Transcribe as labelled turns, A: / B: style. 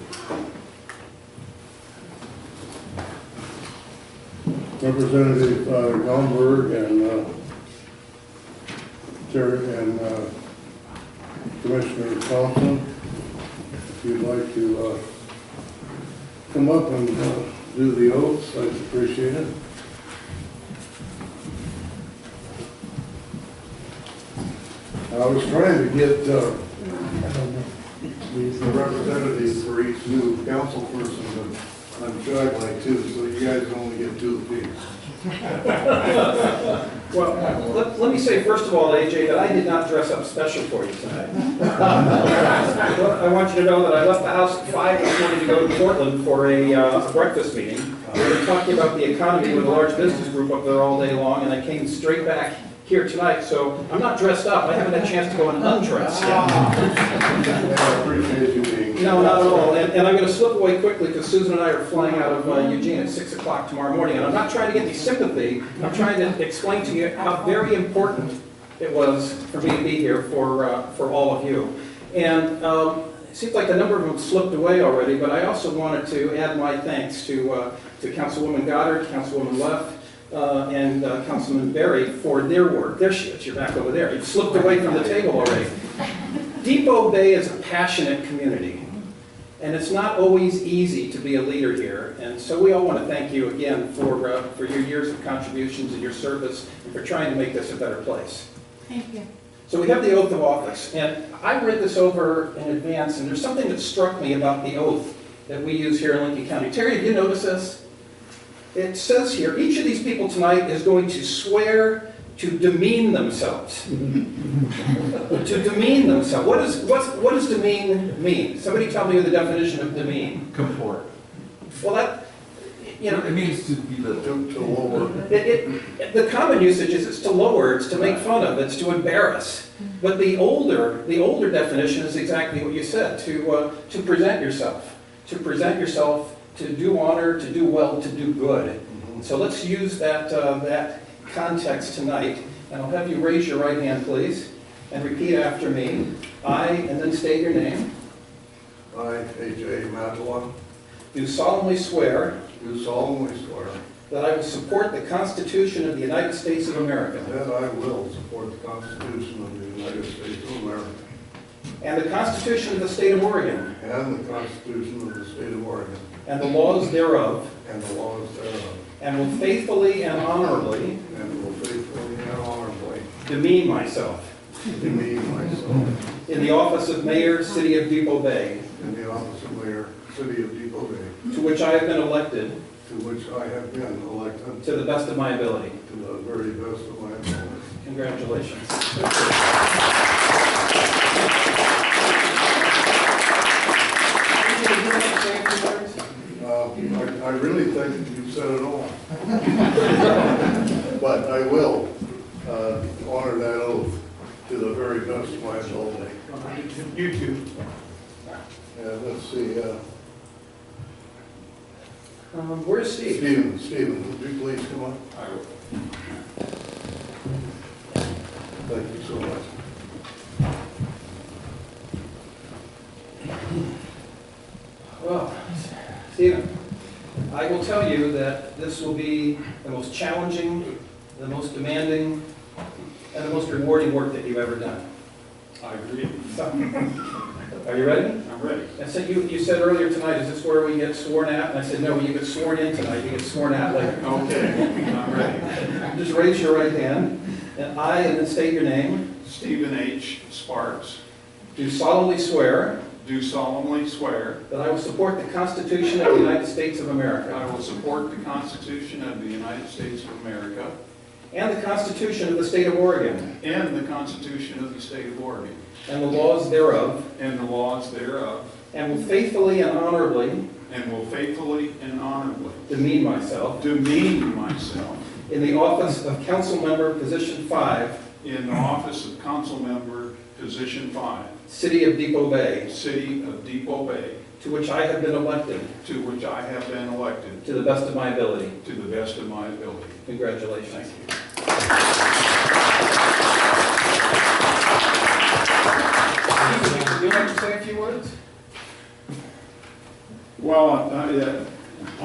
A: Representative uh, Gomberg and uh, Terry and uh, Commissioner Thompson, if you'd like to uh, come up and uh, do the oaths, I'd appreciate it. I was trying to get uh, the representatives for each new council person, but I'm joined by two, so you guys only get two apiece.
B: Well, let, let me say first of all, AJ, that I did not dress up special for you tonight. I want you to know that I left the house at five this morning to go to Portland for a uh, breakfast meeting. We were talking about the economy with a large business group up there all day long, and I came straight back here tonight, so I'm not dressed up, I haven't had a chance to go and undress yet.
A: I appreciate you being here.
B: No, not at all, and, and I'm gonna slip away quickly, because Susan and I are flying out of uh, Eugene at six o'clock tomorrow morning, and I'm not trying to get any sympathy, I'm trying to explain to you how very important it was for me to be here for, uh, for all of you. And um, it seems like a number of them slipped away already, but I also wanted to add my thanks to, uh, to Councilwoman Goddard, Councilwoman Left, uh, and uh, Councilman Berry for their work. There she is, you're back over there. You slipped away from the table already. Depot Bay is a passionate community, and it's not always easy to be a leader here. And so we all want to thank you again for, uh, for your years of contributions and your service, and for trying to make this a better place.
C: Thank you.
B: So we have the oath of office, and I read this over in advance, and there's something that struck me about the oath that we use here in Lincoln County. Terry, did you notice this? It says here, each of these people tonight is going to swear to demean themselves. To demean themselves. What is, what's, what does demean mean? Somebody tell me the definition of demean.
D: Comport.
B: Well, that, you know,
D: It means to belittle.
A: To to lower,
B: It, it, the common usage is it's to lower, it's to make fun of, it's to embarrass. But the older, the older definition is exactly what you said, to, uh, to present yourself, to present yourself, to do honor, to do well, to do good. So let's use that, uh, that context tonight, and I'll have you raise your right hand, please, and repeat after me. I, and then state your name,
A: I, A.J. Matalon,
B: do solemnly swear
A: do solemnly swear
B: that I will support the Constitution of the United States of America.
A: that I will support the Constitution of the United States of America
B: And the Constitution of the State of Oregon,
A: and the Constitution of the State of Oregon
B: and the laws thereof,
A: and the laws thereof,
B: and will faithfully and honorably
A: and will faithfully and honorably
B: demean myself
A: demean myself
B: in the office of Mayor, City of Depot Bay,
A: in the office of Mayor, City of Depot Bay,
B: to which I have been elected
A: to which I have been elected
B: to the best of my ability.
A: to the very best of my ability.
B: Congratulations.
A: Uh, I I really think you said it all. But I will uh, honor that oath to the very best of my ability.
B: You too.
A: And let's see, uh,
B: Um, Where's Steve?
A: Stephen, Stephen, would you please come up? I will. Thank you so much.
B: Well, Stephen, I will tell you that this will be the most challenging, the most demanding, and the most rewarding work that you've ever done.
E: I agree.
B: So, Are you ready?
E: I'm ready.
B: I said, you, you said earlier tonight, is this where we get sworn at? And I said, no, you get sworn in tonight, you get sworn out later.
E: Okay, I'm ready.
B: Just raise your right hand, and I, and then state your name,
E: Stephen H. Sparks,
B: do solemnly swear
E: do solemnly swear
B: that I will support the Constitution of the United States of
E: that
B: America
E: I will support the Constitution of the United States of America
B: and the Constitution of the State of Oregon
E: and the Constitution of the State of Oregon
B: and the laws thereof,
E: and the laws thereof,
B: and will faithfully and honorably
E: and will faithfully and honorably
B: demean myself
E: demean myself
B: in the office of council member, position five,
E: in the office of council member, position five,
B: City of Depot Bay,
E: City of Depot Bay,
B: to which I have been elected
E: to which I have been elected
B: to the best of my ability.
E: to the best of my ability. Thank
B: Congratulations.
E: you.
B: Would you like to say a few words?
E: Well, I- I, uh,